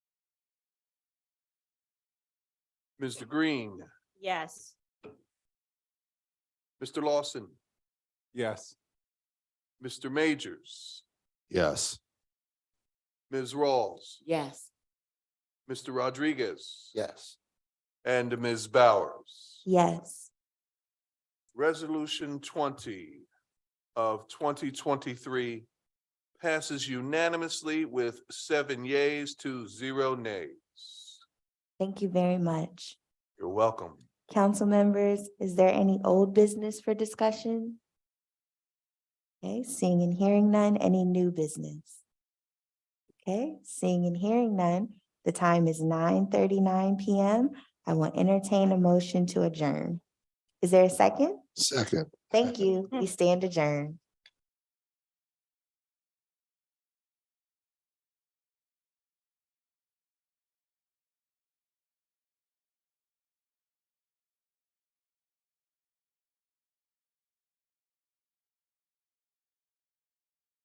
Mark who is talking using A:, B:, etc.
A: Mr. Green,
B: Yes.
A: Mr. Lawson,
C: Yes.
A: Mr. Majors,
D: Yes.
A: Ms. Rawls,
B: Yes.
A: Mr. Rodriguez.
D: Yes.
A: And Ms. Bowers.
B: Yes.
A: Resolution twenty of twenty twenty-three passes unanimously with seven yeas to zero nays.
E: Thank you very much.
A: You're welcome.
E: Council members, is there any old business for discussion? Okay, seeing and hearing none, any new business? Okay, seeing and hearing none, the time is nine thirty-nine PM. I will entertain a motion to adjourn. Is there a second?
D: Second.
E: Thank you. We stand adjourned.